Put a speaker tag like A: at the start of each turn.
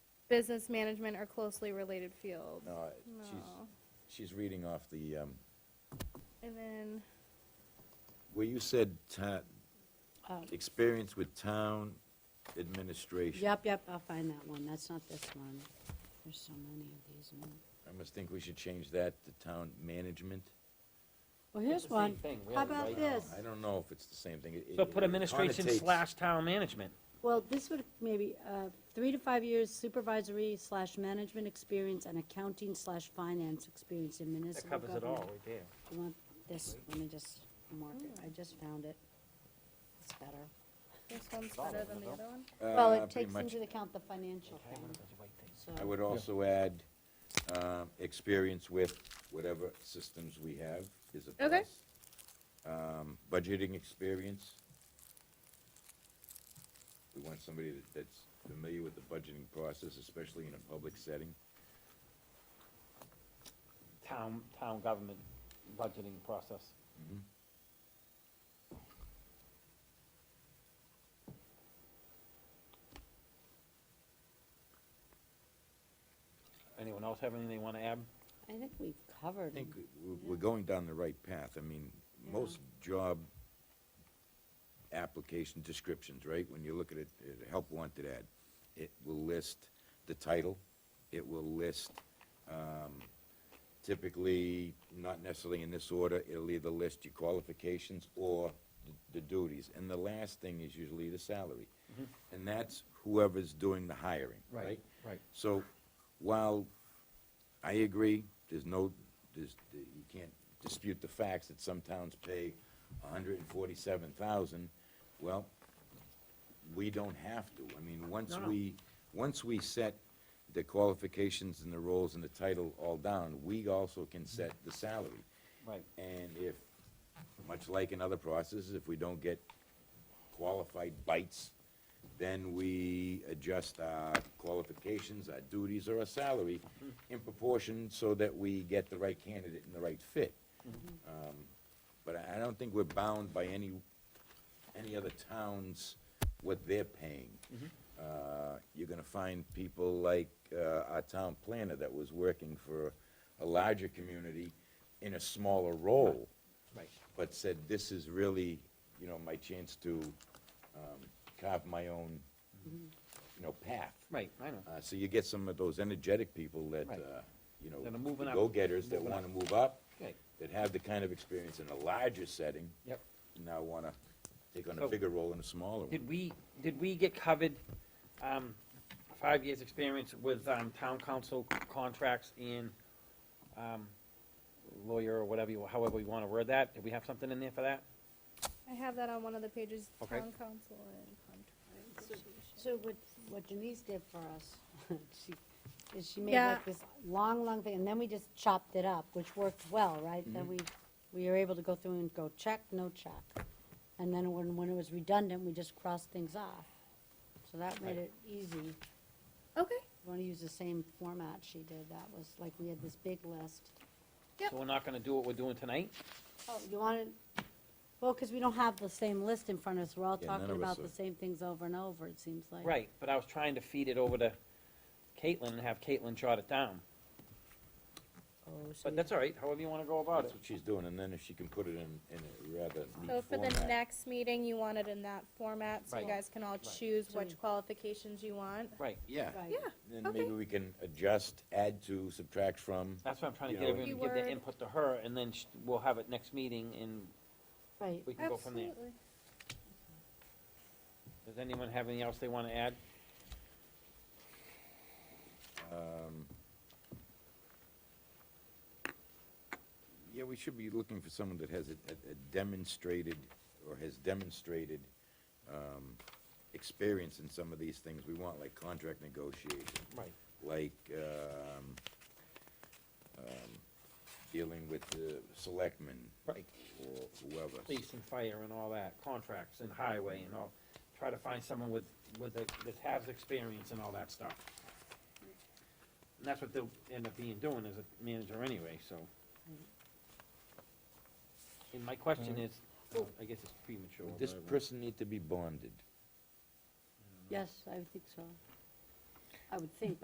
A: business management are closely related fields.
B: No, I-
A: No.
B: she's, she's reading off the, um,
A: And then,
B: where you said ta-
C: Oh.
B: experience with town administration.
C: Yep, yep, I'll find that one. That's not this one. There's so many of these. man.
B: I must think we should change that to town management.
C: Well, here's one. How about this?
B: I don't know if it's the same thing. It-
D: So
B: it-
D: put
B: it
D: administration
B: connotates-
D: slash town management.
C: Well, this would maybe, uh, three to five years supervisory slash management experience and accounting slash finance experience in
D: That
C: municipal
D: covers it all
C: government.
D: right there.
C: You want this, let me just mark it. I just found it. It's better.
A: this one's better than the other one?
C: Well,
B: uh,
C: it
B: pretty
C: takes
B: much.
C: into account the financial thing, so.
B: I would also add, um, experience with whatever systems we have is a
A: Okay.
B: plus. Um, budgeting experience. We want somebody that- that's familiar with the budgeting process, especially in a public setting.
D: Town, town government budgeting process.
B: Mm-hmm.
D: Anyone else have anything they wanna add?
C: I think we've covered
B: I think
C: 'em.
B: we- we're going down the right path. I mean, most job application descriptions, right, when you look at it, at a help wanted ad, it will list the title, it will list, um, typically, not necessarily in this order, it'll either list your qualifications or the duties. And the last thing is usually the salary. And that's whoever's doing the hiring, right?
D: right.
B: So while I agree, there's no, there's, you can't dispute the facts that some towns pay hundred and forty-seven thousand, well, we don't have to. I mean, once
D: No, no.
B: we, once we set the qualifications and the roles and the title all down, we also can set the salary.
D: Right.
B: And if, much like in other processes, if we don't get qualified bites, then we adjust our qualifications, our duties, or our salary in proportion so that we get the right candidate and the right fit. Um, But I I don't think we're bound by any, any other towns, what they're paying. Uh, You're gonna find people like uh, our town planner that was working for a larger community in a smaller role
D: Right.
B: but said, this is really, you know, my chance to um, carve my own, you know, path.
D: Right, I know.
B: Uh, So you get some of those energetic people that,
D: Right.
B: uh, you know,
D: That are moving
B: the
D: up,
B: go-getters that
D: moving up.
B: want to move up,
D: Okay,
B: that have the kind of experience in a larger setting,
D: yep.
B: now want to take on a
D: So-
B: bigger role in a smaller one.
D: Did we, did we get covered, um, five years' experience with, um, town council contracts and, um, lawyer or whatever, you however you wanna word that? Did we have something in there for that?
A: I have that on one of the pages,
D: Okay.
A: town council and contract negotiation.
C: So what, what Denise did for us, she, is she made
A: Yeah.
C: like this long, long thing, and then we just chopped it up, which worked well, right? Then
B: Mm-hmm.
C: we, we were able to go through and go check, no check. And then when, when it was redundant, we just crossed things off. So that made it easy.
A: Okay,
C: Want to use the same format she did, that was like, we had this big list.
A: Yep.
D: So we're not gonna do what we're doing tonight?
C: Oh, you wanted, well, because we don't have the same list in front of us, we're all
B: Yeah, none
C: talking
B: of us
C: about the
B: are.
C: same things over and over, it seems like.
D: Right, but I was trying to feed it over to Caitlin and have Caitlin jot it down.
C: Oh, so
D: But that's all right, however you wanna go about
B: That's
D: it.
B: what she's doing, and then if she can put it in, in a rather
A: so
B: neat
A: for the
B: format.
A: next meeting, you want it in that format, so you
D: Mm, Right.
A: guys can all choose which qualifications you want.
D: Right,
B: Yeah,
C: Right.
A: Yeah,
B: then
A: okay.
B: maybe we can adjust, add to, subtract from.
D: that's what I'm trying to
B: You
D: get
B: know,
D: everyone to give their
A: Keyword.
D: input to her, and then sh- we'll have it next meeting, and
C: Right.
D: we can go from there.
A: absolutely.
D: Does anyone have anything else they wanna add?
B: Yeah, we should be looking for someone that has a a- a demonstrated, or has demonstrated um, experience in some of these things we want, like contract negotiation,
D: Right.
B: like um, um, dealing with the selectmen
D: Right.
B: or whoever.
D: police and fire and all that, contracts and highway and all, try to find someone with, with, a- that has experience and all that stuff. And that's what they'll end up being doing as a manager anyway, so. And my question is, uh, I guess it's premature.
B: Would this
D: but uh, I won't-
B: person need to be bonded?
C: Yes, I would think so. I would think,